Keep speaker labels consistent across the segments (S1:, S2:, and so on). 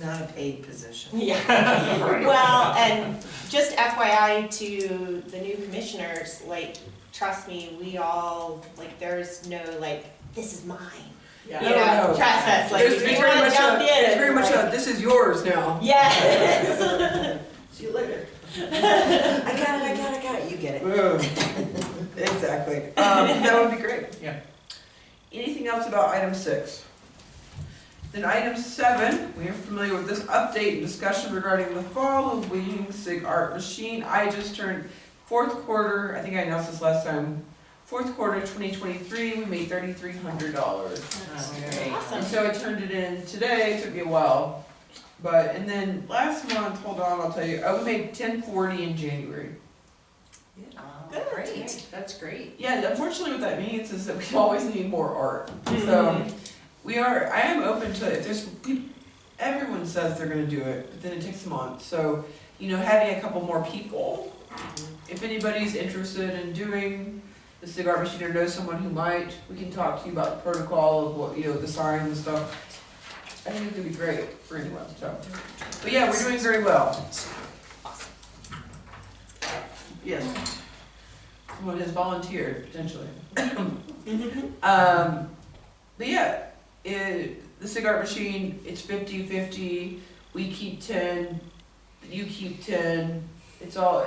S1: Not a paid position.
S2: Yeah,
S3: Right.
S2: well, and just FYI to the new commissioners, like, trust me, we all, like, there's no, like, this is mine. You
S4: Yeah.
S1: No,
S2: know,
S1: no.
S2: trust us, like,
S4: There's
S2: if
S4: it's
S2: you
S4: very
S2: wanna
S4: much a,
S2: jump in.
S4: it's very much
S2: like-
S4: a, this is yours now.
S2: Yes.
S4: See you later.
S1: I got it, I got it, I got it, you get it.
S4: Ugh. Exactly. Um, that would be great.
S3: Yeah.
S4: Anything else about item six? Then item seven, we are familiar with this update and discussion regarding the fall of Leading Sig Art Machine. I just turned fourth quarter, I think I announced this last time, fourth quarter twenty twenty-three, we made thirty-three hundred dollars. And
S2: Awesome.
S4: so I turned it in today, it took me a while, but, and then last month, hold on, I'll tell you, oh, we made ten forty in January.
S1: Oh,
S2: Good.
S3: Great, that's great.
S4: Yeah, unfortunately what that means is that we always need more art, so, we are, I am open to it, there's, peop- everyone says they're gonna do it, but then it takes a month, so, you know, having a couple more people, if anybody's interested in doing the cigar machine or knows someone who might, we can talk to you about the protocol of what, you know, the signs and stuff. I think it could be great for anyone, so. But yeah, we're doing very well. Yes. Someone has volunteered, potentially. Um, but yeah, it, the cigar machine, it's 50 50. We keep 10, you keep 10. It's all,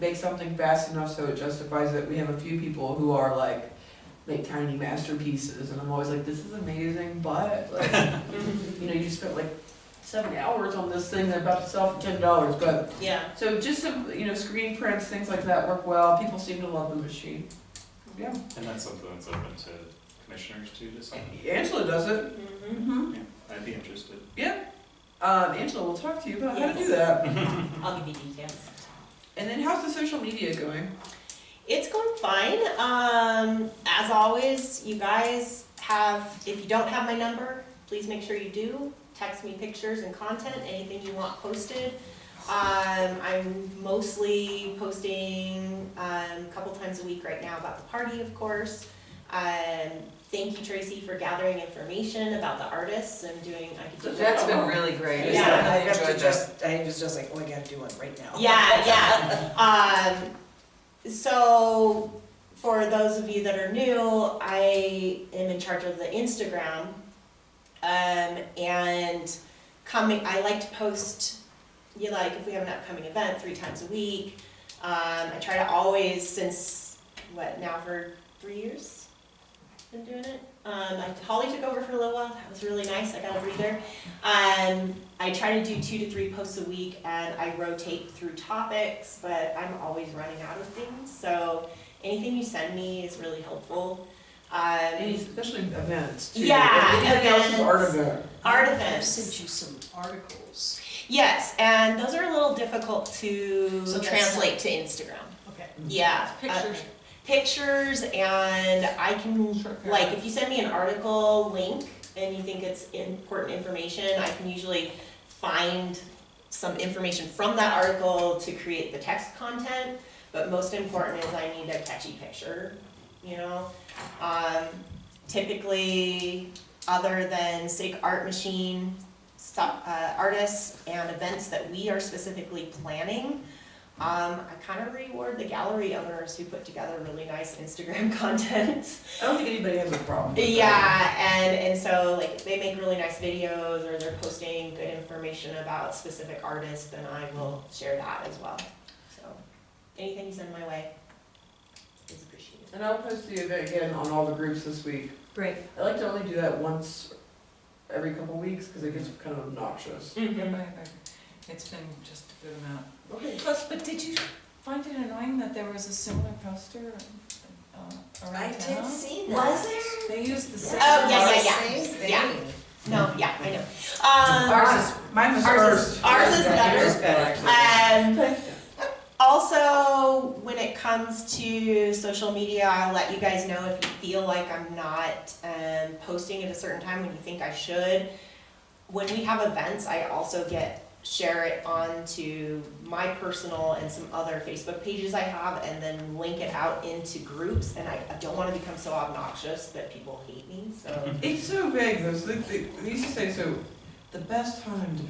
S4: make something fast enough so it justifies it. We have a few people who are like, make tiny masterpieces, and I'm always like, this is amazing, but like, you know, you spent like seven hours on this thing that's about to sell for ten dollars. But
S2: Yeah.
S4: so just some, you know, screen prints, things like that work well. People seem to love the machine. Yeah,
S5: And that's something that's open to commissioners to decide.
S4: Angela does it.
S2: Mhm.
S4: Mm-hmm.
S5: I'd be interested.
S4: Um, Angela, we'll talk to you about how to do
S2: Yes.
S4: that.
S2: I'll give you details.
S4: And then how's the social media going?
S2: It's going fine. Um, as always, you guys have, if you don't have my number, please make sure you do. Text me pictures and content, anything you want posted. Um, I'm mostly posting um, a couple times a week right now about the party, of course. Um, thank you, Tracy, for gathering information about the artists. I'm doing, I could do
S3: That's been really great.
S2: Yeah.
S1: I
S3: I
S1: have to
S3: enjoyed that.
S1: just, I was just like, oh, I gotta do one right now.
S2: Yeah, yeah. Um, so for those of you that are new, I am in charge of the Instagram. Um, and coming, I like to post, you like, if we have an upcoming event, three times a week. Um, I try to always, since, what, now for three years? Been doing it. Um, I- Holly took over for a little while. That was really nice. I got a breather. Um, I try to do two to three posts a week and I rotate through topics, but I'm always running out of things. So anything you send me is really helpful.
S4: Any
S2: Um,
S4: especially events too.
S2: Yeah,
S4: Anything else is art
S2: events.
S4: event.
S2: art
S3: I've
S2: events.
S3: sent you some articles.
S2: Yes, and those are a little difficult to
S3: So that's-
S2: translate to Instagram.
S3: Okay.
S2: Yeah.
S3: Pictures.
S2: uh, Pictures and I can, like, if you send me an article link and you think it's important information, I can usually find some information from that article to create the text content. But most important is I need a catchy picture, you know? Um, typically, other than SIG Art Machine, stuff, uh, artists and events that we are specifically planning, um, I kind of reward the gallery owners who put together really nice Instagram content.
S4: I don't think anybody has a problem. with that.
S2: yeah, and, and so like they make really nice videos or they're posting good information about specific artists, then I will share that as well. So anything you send my way is appreciated.
S4: And I'll post the event again on all the groups this week.
S3: Great.
S4: I like to only do that once every couple weeks because it gets kind of obnoxious.
S3: Mm-hmm. It's been just a good amount.
S4: Okay.
S3: Plus, but did you find it annoying that there was a similar poster uh,
S1: I
S3: around
S1: did
S3: town?
S1: see that.
S2: Was there?
S3: They used the same.
S2: Oh, yeah,
S3: poster.
S2: yeah,
S1: Same
S2: yeah, yeah.
S1: thing.
S2: No, yeah, I know. Um,
S3: Ours is,
S4: Mine was
S2: Ours is-
S4: first.
S2: ours is better.
S1: Yours better.
S2: Um, also, when it comes to social media, I'll let you guys know if you feel like I'm not um, posting at a certain time when you think I should. When we have events, I also get share it onto my personal and some other Facebook pages I have, and then link it out into groups. And I, I don't want to become so obnoxious that people hate me. So.
S4: It's so vague though. So they, they, they used to say so. The best time to